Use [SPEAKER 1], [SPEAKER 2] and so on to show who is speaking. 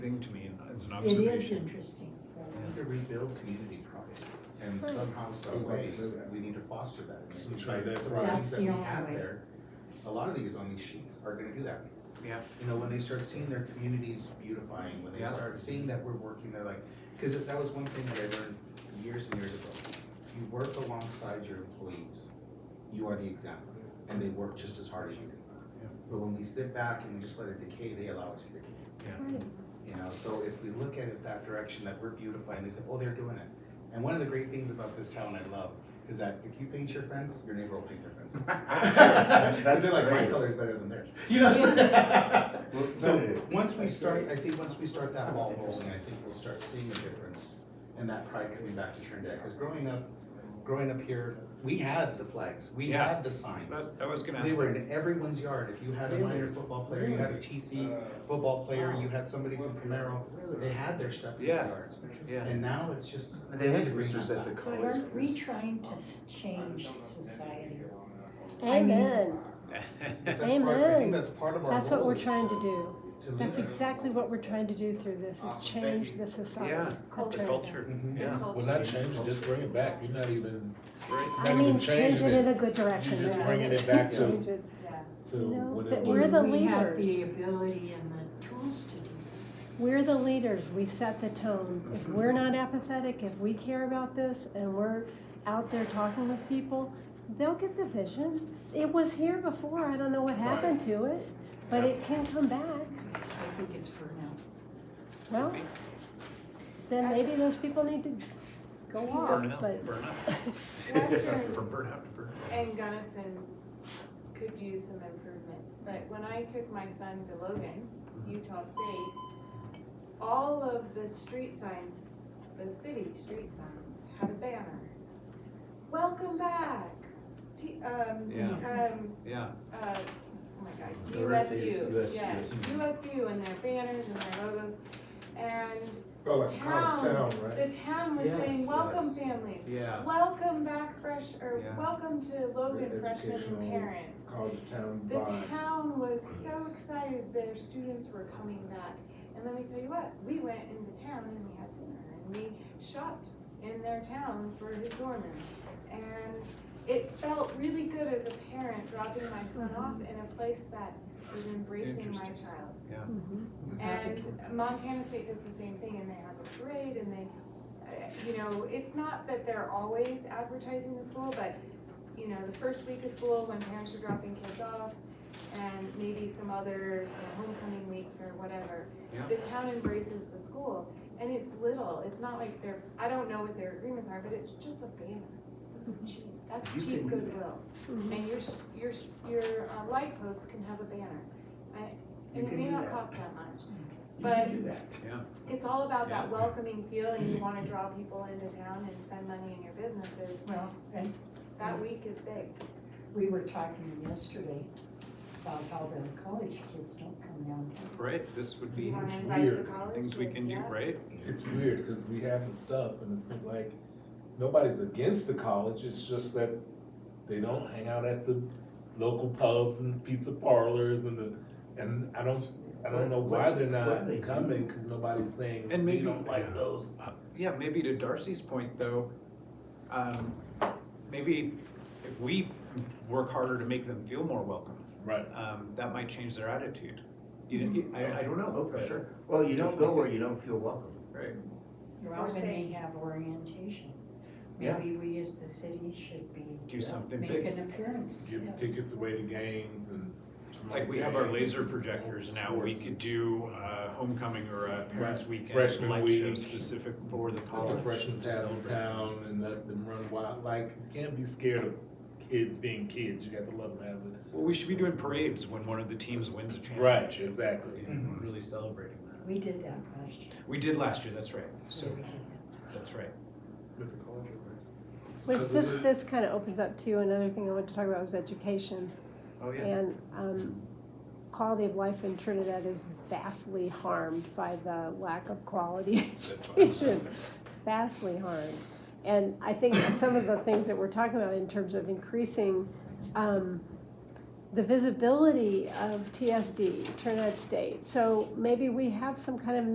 [SPEAKER 1] thing to me as an
[SPEAKER 2] It is
[SPEAKER 1] observation.
[SPEAKER 2] interesting.
[SPEAKER 3] We need to rebuild community pride, and
[SPEAKER 2] Right.
[SPEAKER 3] somehow, some
[SPEAKER 4] There's
[SPEAKER 3] way,
[SPEAKER 4] lots to do that.
[SPEAKER 3] we need to foster that. And
[SPEAKER 4] Some
[SPEAKER 3] I think
[SPEAKER 4] try
[SPEAKER 3] that
[SPEAKER 4] that.
[SPEAKER 3] Some of the things
[SPEAKER 2] That's
[SPEAKER 3] that we
[SPEAKER 2] the only
[SPEAKER 3] have
[SPEAKER 2] way.
[SPEAKER 3] there, a lot of these on these sheets are gonna do that.
[SPEAKER 1] Yeah.
[SPEAKER 3] You know, when they start seeing their communities beautifying, when they
[SPEAKER 1] Yeah.
[SPEAKER 3] start seeing that we're working, they're like, cause that was one thing that I learned years and years ago. You work alongside your employees, you are the example, and they work just as hard as you do.
[SPEAKER 1] Yeah.
[SPEAKER 3] But when we sit back and we just let it decay, they allow it to decay. You know, so if we look at it that direction, that we're beautifying, they say, oh, they're doing it. And one of the great things about this town I love is that if you paint your fence, your neighbor will paint their fence. Cause
[SPEAKER 4] That's
[SPEAKER 3] they're like, my
[SPEAKER 4] great.
[SPEAKER 3] color's better than theirs, you know?
[SPEAKER 4] Well,
[SPEAKER 3] So,
[SPEAKER 4] competitive.
[SPEAKER 3] once we
[SPEAKER 4] That's
[SPEAKER 3] start, I think once we start that ball rolling, I think we'll start seeing a difference and that pride coming back to Trinidad, cause growing up, growing up here, we had the flags, we
[SPEAKER 1] Yeah.
[SPEAKER 3] had the signs.
[SPEAKER 1] That, I was gonna
[SPEAKER 3] They
[SPEAKER 1] ask.
[SPEAKER 3] were
[SPEAKER 1] that.
[SPEAKER 3] in everyone's yard, if you had a
[SPEAKER 4] Really?
[SPEAKER 3] minor football player, you had a TC, football player, you had somebody from Primero, they had their stuff in the
[SPEAKER 1] Yeah.
[SPEAKER 3] yards.
[SPEAKER 4] Yeah.
[SPEAKER 3] And now it's just.
[SPEAKER 4] They had
[SPEAKER 3] bring
[SPEAKER 4] roosters
[SPEAKER 3] that
[SPEAKER 4] at the
[SPEAKER 3] back.
[SPEAKER 2] But
[SPEAKER 4] college.
[SPEAKER 2] aren't we trying to
[SPEAKER 1] Um,
[SPEAKER 2] s- change society? I mean-
[SPEAKER 5] Amen.
[SPEAKER 3] But that's part- I think
[SPEAKER 5] Amen.
[SPEAKER 3] that's part of our
[SPEAKER 5] That's what
[SPEAKER 3] role
[SPEAKER 5] we're
[SPEAKER 3] is
[SPEAKER 5] trying to do.
[SPEAKER 3] to
[SPEAKER 5] That's
[SPEAKER 3] lead.
[SPEAKER 5] exactly what we're trying to do through this, is
[SPEAKER 6] Awesome, thank
[SPEAKER 5] change
[SPEAKER 6] you.
[SPEAKER 5] the society.
[SPEAKER 1] Yeah,
[SPEAKER 5] of
[SPEAKER 1] the
[SPEAKER 5] Trinidad.
[SPEAKER 1] culture,
[SPEAKER 3] Mhm.
[SPEAKER 1] yeah,
[SPEAKER 7] Well, not change, it, just bring it back, you're not even,
[SPEAKER 1] right.
[SPEAKER 5] I
[SPEAKER 7] Not
[SPEAKER 5] mean,
[SPEAKER 7] even
[SPEAKER 5] change
[SPEAKER 7] changing
[SPEAKER 5] it in
[SPEAKER 7] it,
[SPEAKER 5] a good direction.
[SPEAKER 7] just
[SPEAKER 5] yeah.
[SPEAKER 7] bringing it back to-
[SPEAKER 5] Change it.
[SPEAKER 7] to
[SPEAKER 5] You know,
[SPEAKER 7] what
[SPEAKER 5] that
[SPEAKER 7] it
[SPEAKER 5] we're
[SPEAKER 7] was.
[SPEAKER 5] the
[SPEAKER 2] We have
[SPEAKER 5] leaders.
[SPEAKER 2] the ability and the tools to do
[SPEAKER 5] We're the leaders, we set the tone. If we're not apathetic, if we care about this and we're out there talking with people, they'll get the vision. It was here before, I don't know what happened to it, but it can come back.
[SPEAKER 2] that. I think it's burnout.
[SPEAKER 5] Well, then maybe those people need to go
[SPEAKER 1] Burnout,
[SPEAKER 5] off, but.
[SPEAKER 1] burnout.
[SPEAKER 7] Western-
[SPEAKER 1] From burnout to burnout.
[SPEAKER 7] And Gunnison could use some improvements, but when I took my son to Logan,
[SPEAKER 4] Mm-hmm.
[SPEAKER 7] Utah State, all of the street signs, the city street signs, had a banner. Welcome back, T, um,
[SPEAKER 1] Yeah.
[SPEAKER 7] um,
[SPEAKER 1] Yeah,
[SPEAKER 7] uh, oh my god,
[SPEAKER 4] Diversity,
[SPEAKER 7] USU,
[SPEAKER 4] USU.
[SPEAKER 7] yeah, USU and their banners and their logos. And
[SPEAKER 4] Oh,
[SPEAKER 7] town, the town was
[SPEAKER 4] Yes,
[SPEAKER 7] saying, welcome
[SPEAKER 4] yes.
[SPEAKER 7] families,
[SPEAKER 1] yeah,
[SPEAKER 7] Welcome back fresh, or
[SPEAKER 1] Yeah.
[SPEAKER 7] welcome to Logan freshmen and
[SPEAKER 4] educational
[SPEAKER 7] parents.
[SPEAKER 4] college town
[SPEAKER 7] The town was so excited their students were coming back. And let me tell you what, we went into town and we had dinner and we shopped in their town for his dorm room. And it felt really good as a parent dropping my son off in a place that was embracing my
[SPEAKER 1] Mm-hmm. Interesting.
[SPEAKER 7] child.
[SPEAKER 5] Mhm.
[SPEAKER 3] We've had the-
[SPEAKER 7] And Montana State does the same thing, and they have a parade, and they, uh, you know, it's not that they're always advertising the school, but, you know, the first week of school, when parents are dropping kids off, and maybe some other uh, homecoming weeks or whatever,
[SPEAKER 1] Yeah.
[SPEAKER 7] the town embraces the school, and it's little, it's not like they're, I don't know what their agreements are, but it's just a banner. That's cheap, that's
[SPEAKER 1] You
[SPEAKER 7] cheap
[SPEAKER 1] can-
[SPEAKER 7] goodwill,
[SPEAKER 5] Mhm.
[SPEAKER 7] and your, s- your, s- your uh, light posts can have a banner, I-
[SPEAKER 3] You
[SPEAKER 7] and it
[SPEAKER 3] can
[SPEAKER 7] may
[SPEAKER 3] do
[SPEAKER 7] not
[SPEAKER 3] that.
[SPEAKER 7] cost that much,
[SPEAKER 3] You
[SPEAKER 7] but
[SPEAKER 3] can do that.
[SPEAKER 1] yeah,
[SPEAKER 7] it's all about that
[SPEAKER 1] Yeah.
[SPEAKER 7] welcoming feeling, you wanna draw people into town and spend money in your businesses,
[SPEAKER 2] Well, and
[SPEAKER 7] that week is big.
[SPEAKER 2] we were talking yesterday about how the college kids don't come downtown.
[SPEAKER 1] right, this would
[SPEAKER 7] Do you
[SPEAKER 1] be
[SPEAKER 7] wanna
[SPEAKER 4] It's
[SPEAKER 7] invite the
[SPEAKER 4] weird.
[SPEAKER 7] college
[SPEAKER 1] things we
[SPEAKER 7] kids
[SPEAKER 1] can do,
[SPEAKER 7] up?
[SPEAKER 1] right?
[SPEAKER 4] It's weird, cause we have the stuff and it's like, nobody's against the college, it's just that they don't hang out at the local pubs and pizza parlors and the, and I don't, I don't know why they're not coming, cause nobody's saying,
[SPEAKER 1] And
[SPEAKER 4] we
[SPEAKER 1] maybe-
[SPEAKER 4] don't like those.
[SPEAKER 1] Uh, Yeah, maybe to Darcy's point though, um, maybe if we work harder to make them feel more welcome,
[SPEAKER 4] Right.
[SPEAKER 1] um, that might change their attitude. You, I, I don't know.
[SPEAKER 8] Oh, for
[SPEAKER 1] but-
[SPEAKER 8] sure. Well, you don't go where you don't feel welcome.
[SPEAKER 1] Right,
[SPEAKER 2] Or
[SPEAKER 7] Or
[SPEAKER 2] when
[SPEAKER 7] say-
[SPEAKER 2] they have orientation.
[SPEAKER 1] Yeah.
[SPEAKER 2] Maybe we as the city should be,
[SPEAKER 1] do something
[SPEAKER 2] make
[SPEAKER 1] big,
[SPEAKER 2] an appearance.
[SPEAKER 4] Give tickets away to games and.
[SPEAKER 1] like we have our laser projectors now, we could do, uh, homecoming or a parents' weekend,
[SPEAKER 4] Freshman
[SPEAKER 1] light show
[SPEAKER 4] week.
[SPEAKER 1] specific for the
[SPEAKER 4] All
[SPEAKER 1] college.
[SPEAKER 4] the freshmen
[SPEAKER 1] to
[SPEAKER 4] have in
[SPEAKER 1] celebrate.
[SPEAKER 4] town and let them run wild, like, you can't be scared of kids being kids, you got to love them as it.
[SPEAKER 1] Well, we should be doing parades when one of the teams wins a
[SPEAKER 4] Right,
[SPEAKER 1] championship.
[SPEAKER 4] exactly.
[SPEAKER 1] And we're really celebrating that.
[SPEAKER 2] We did that last year.
[SPEAKER 1] We did last year, that's right, so,
[SPEAKER 2] We did that.
[SPEAKER 1] that's right.
[SPEAKER 3] With the college or
[SPEAKER 5] Wait, this, this kind of opens up to another thing I wanted to talk about was education.
[SPEAKER 1] Oh, yeah.
[SPEAKER 5] And um, quality of life in Trinidad is vastly harmed by the lack of quality education. Vastly harmed. And I think some of the things that we're talking about in terms of increasing um, the visibility of TSD, Trinidad State. So maybe we have some kind of